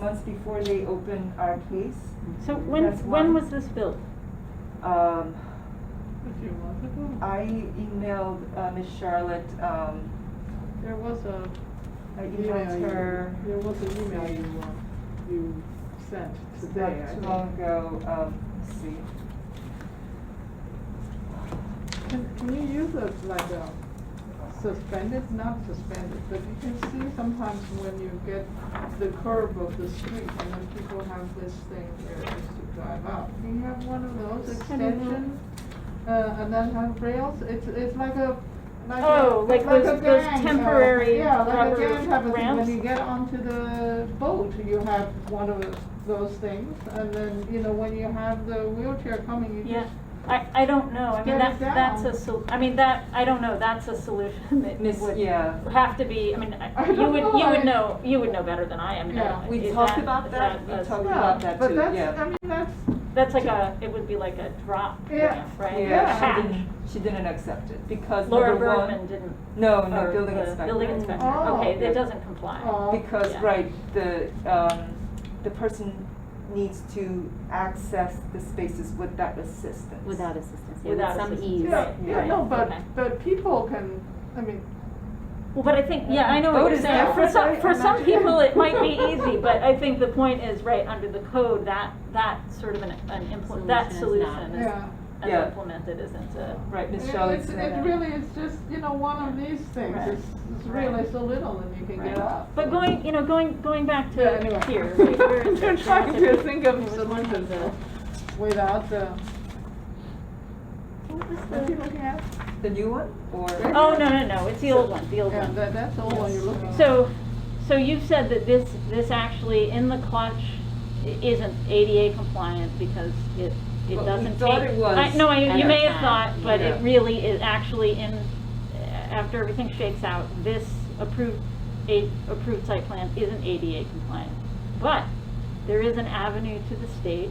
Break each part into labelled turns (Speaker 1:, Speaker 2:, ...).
Speaker 1: months before they open our case.
Speaker 2: So when,
Speaker 1: That's
Speaker 2: when
Speaker 1: one.
Speaker 2: was this built?
Speaker 1: Um,
Speaker 3: A few months ago,
Speaker 1: I emailed, uh, Miss Charlotte, um,
Speaker 3: there was a.
Speaker 1: I
Speaker 3: email
Speaker 1: emailed
Speaker 3: you-
Speaker 1: her
Speaker 3: There was an email you, uh, you sent
Speaker 1: not
Speaker 3: today,
Speaker 1: too
Speaker 3: I think.
Speaker 1: long ago, um, let's see.
Speaker 3: Can, can you use a, like a suspended, not suspended, but you can see sometimes when you get the curve of the street and then people have this thing here just to drive out. Do you have one of those
Speaker 2: I don't know.
Speaker 3: extensions? Uh, and then have rails, it's, it's like a, like a,
Speaker 2: Oh, like
Speaker 3: like
Speaker 2: those-
Speaker 3: a
Speaker 2: those
Speaker 3: gang, uh,
Speaker 2: temporary
Speaker 3: Yeah, like
Speaker 2: rubber
Speaker 3: a gang have, a thing. when
Speaker 2: ramps?
Speaker 3: you get onto the boat, you have one of those things. And then, you know, when you have the wheelchair coming, you
Speaker 2: Yeah,
Speaker 3: just
Speaker 2: I, I don't know, I mean,
Speaker 3: Get
Speaker 2: that,
Speaker 3: it
Speaker 2: that's a
Speaker 3: Mm-hmm. down.
Speaker 2: sol, I mean, that, I don't know, that's a solution that
Speaker 1: Miss,
Speaker 2: would
Speaker 1: yeah,
Speaker 2: have to be, I mean, I-
Speaker 3: I
Speaker 2: you
Speaker 3: don't
Speaker 2: would,
Speaker 3: know,
Speaker 2: you would
Speaker 3: I-
Speaker 2: know, you would know better than I am.
Speaker 3: Yeah.
Speaker 2: no,
Speaker 1: We
Speaker 2: is
Speaker 1: talked about that.
Speaker 2: is
Speaker 1: We
Speaker 2: a-
Speaker 1: talked-
Speaker 3: Yeah,
Speaker 1: about that too,
Speaker 3: But that's,
Speaker 1: yeah.
Speaker 3: I mean, that's,
Speaker 2: That's like a, it would be like a drop
Speaker 3: Yeah.
Speaker 2: ramp, right?
Speaker 3: Yeah.
Speaker 2: A
Speaker 1: yeah, she
Speaker 2: hatch.
Speaker 1: didn't, she didn't accept it because
Speaker 2: Laura
Speaker 1: number one-
Speaker 2: Bergman didn't,
Speaker 1: No, no,
Speaker 2: or
Speaker 1: building
Speaker 2: the
Speaker 1: inspector.
Speaker 2: building inspector,
Speaker 3: Oh.
Speaker 2: okay,
Speaker 1: Yeah.
Speaker 2: that doesn't comply.
Speaker 3: uh,
Speaker 1: Because,
Speaker 2: Yeah.
Speaker 1: right, the, um, the person needs to access the spaces without assistance.
Speaker 4: Without assistance, yeah,
Speaker 2: Without
Speaker 4: with some
Speaker 2: assistance.
Speaker 4: ease.
Speaker 3: yeah, yeah,
Speaker 2: right,
Speaker 3: no, but,
Speaker 2: okay.
Speaker 3: but people can, I mean,
Speaker 2: Well, but I think, yeah, I know what
Speaker 1: Vote
Speaker 2: you're
Speaker 1: is
Speaker 2: saying. For
Speaker 1: different,
Speaker 2: some,
Speaker 1: right?
Speaker 2: for
Speaker 1: I'm
Speaker 2: some
Speaker 1: not-
Speaker 2: people, it might be easy, but I think the point is, right, under the code, that, that sort of an, an implement, that
Speaker 4: Solution is
Speaker 2: solution is,
Speaker 3: yeah.
Speaker 2: as
Speaker 1: Yeah.
Speaker 2: implemented, isn't a,
Speaker 1: Right, Miss
Speaker 3: It-
Speaker 1: Charlotte
Speaker 3: it's-
Speaker 1: said
Speaker 3: It
Speaker 1: that.
Speaker 3: really is just, you know, one of these things,
Speaker 2: Right.
Speaker 3: it's, it's really so little and you can
Speaker 2: Right.
Speaker 3: get up.
Speaker 2: but going, you know, going, going back
Speaker 3: Yeah,
Speaker 2: to
Speaker 3: anyway.
Speaker 2: here, right, where is
Speaker 3: They're
Speaker 2: it?
Speaker 3: trying to think of
Speaker 2: It was one of
Speaker 3: solutions
Speaker 2: the-
Speaker 3: without the,
Speaker 2: what was
Speaker 3: what are you
Speaker 2: the-
Speaker 3: looking at?
Speaker 1: The new one, or?
Speaker 3: Right.
Speaker 2: Oh, no, no, no, it's the old one, the old
Speaker 3: Yeah,
Speaker 2: one.
Speaker 3: that, that's the one you're looking at.
Speaker 2: So, so you've said that this, this actually in the clutch i- isn't ADA compliant because it, it
Speaker 1: But we
Speaker 2: doesn't take.
Speaker 1: thought it was
Speaker 2: I- No, I-
Speaker 4: at
Speaker 2: you
Speaker 4: the
Speaker 2: may have
Speaker 4: time,
Speaker 2: thought, but it
Speaker 1: yeah.
Speaker 2: really is actually in, after everything shakes out, this approved, a, approved site plan isn't ADA compliant. But there is an avenue to the state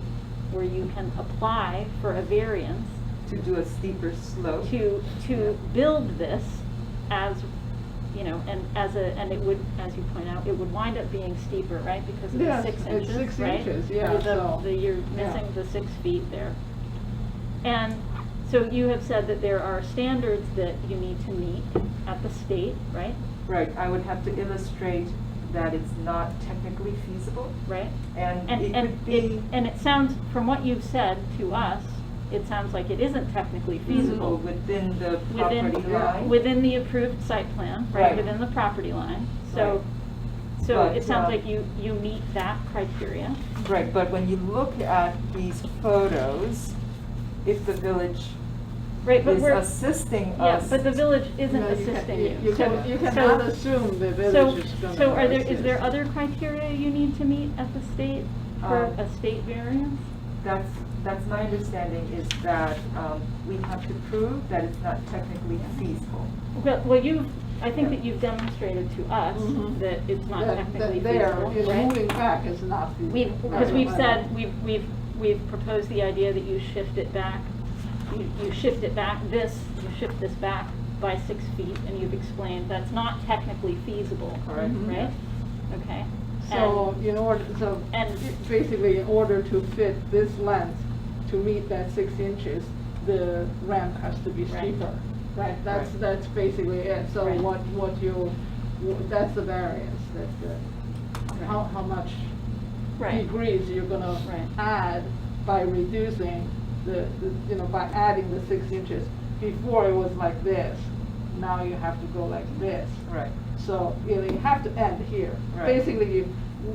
Speaker 2: where you can apply for a variance
Speaker 1: To do a steeper slope?
Speaker 2: to, to build this as, you know, and as a, and it would, as you point out, it would wind up being steeper, right? Because of the
Speaker 3: Yes,
Speaker 2: six
Speaker 3: it's
Speaker 2: inches, right?
Speaker 3: six inches, yeah,
Speaker 2: The- the-
Speaker 3: so,
Speaker 2: the- You're
Speaker 3: yeah.
Speaker 2: missing the six feet there. And so you have said that there are standards that you need to meet at the state, right?
Speaker 1: Right, I would have to illustrate that it's not technically feasible,
Speaker 2: Right?
Speaker 1: and
Speaker 2: And,
Speaker 1: it could
Speaker 2: and it,
Speaker 1: be
Speaker 2: and it sounds, from what you've said to us, it sounds like it isn't technically
Speaker 1: feasible
Speaker 3: Mm-hmm.
Speaker 1: within the
Speaker 2: within,
Speaker 1: property line.
Speaker 2: within the approved site plan, right,
Speaker 1: Right.
Speaker 2: within the property line. So, so
Speaker 1: But,
Speaker 2: it sounds
Speaker 1: uh,
Speaker 2: like you, you meet that criteria.
Speaker 1: Right, but when you look at these photos, if the village
Speaker 2: Right, but
Speaker 1: is
Speaker 2: we're,
Speaker 1: assisting
Speaker 2: yeah,
Speaker 1: us.
Speaker 2: but the village isn't
Speaker 3: No, you can-
Speaker 2: assisting you.
Speaker 3: You
Speaker 2: So-
Speaker 3: can, you
Speaker 2: so-
Speaker 3: cannot assume the village is
Speaker 2: So,
Speaker 3: gonna.
Speaker 2: so are there,
Speaker 3: assist.
Speaker 2: is there other criteria you need to meet at the state for
Speaker 1: Um,
Speaker 2: a state variance?
Speaker 1: That's, that's my understanding is that um, we have to prove that it's not technically feasible.
Speaker 2: Well, well, you've, I think
Speaker 1: Yeah. Mm-hmm.
Speaker 2: that you've demonstrated to us
Speaker 3: Mhm.
Speaker 2: that it's not
Speaker 3: That-
Speaker 2: technically
Speaker 3: That there,
Speaker 2: feasible,
Speaker 3: you know,
Speaker 2: right?
Speaker 3: moving back is not feasible.
Speaker 2: We've, because
Speaker 3: Right.
Speaker 2: we've said, we've, we've, we've proposed the idea that you shift it back, you, you shift it back, this, you shift this back by six feet, and you've explained that's not technically feasible,
Speaker 1: Correct.
Speaker 3: Mhm.
Speaker 2: right? Okay,
Speaker 3: So in order, so
Speaker 2: And-
Speaker 3: basically in order to fit this length, to meet that six inches, the ramp has to be
Speaker 2: Right.
Speaker 3: steeper. Right, that's, that's basically it. So
Speaker 2: Right.
Speaker 3: what, what you, wh- that's the variance, that's the, how, how much
Speaker 2: right,
Speaker 3: degrees you're gonna
Speaker 2: Right.
Speaker 3: add by reducing the, the- you know, by adding the six inches. Before it was like this, now you have to go like this.
Speaker 1: Right.
Speaker 3: So, you know, you have to end here.
Speaker 1: Right.
Speaker 3: Basically, you-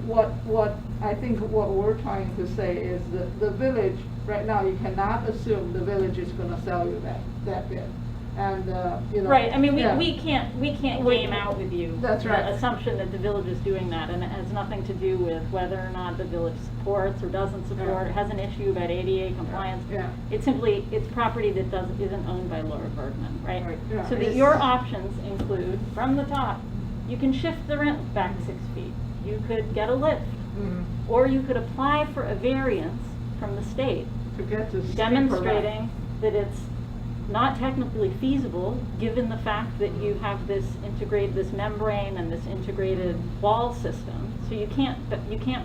Speaker 3: what, what, I think what we're trying to say is that the village, right now, you cannot assume the village is gonna sell you that, that bit. And, uh, you know.
Speaker 2: right, I mean, we,
Speaker 3: yeah.
Speaker 2: we can't, we can't
Speaker 3: We-
Speaker 2: game out with you.
Speaker 3: That's right.
Speaker 2: The assumption that the village is doing that, and it has nothing to do with whether or not the village supports or doesn't support, has an issue about ADA compliance.
Speaker 3: Yeah,
Speaker 2: It's simply, it's property that doesn't, isn't owned by Laura Bergman, right?
Speaker 1: Right,
Speaker 3: yeah.
Speaker 2: So that your options include, from the top, you can shift the rent back six feet. You could get a lift,
Speaker 3: Mhm.
Speaker 1: Mm-hmm.
Speaker 2: or you could apply for a variance from the state
Speaker 3: To get to steeper.
Speaker 2: demonstrating that it's not technically feasible, given the fact that you have this integrate, this membrane and this integrated wall system. So you can't, but you can't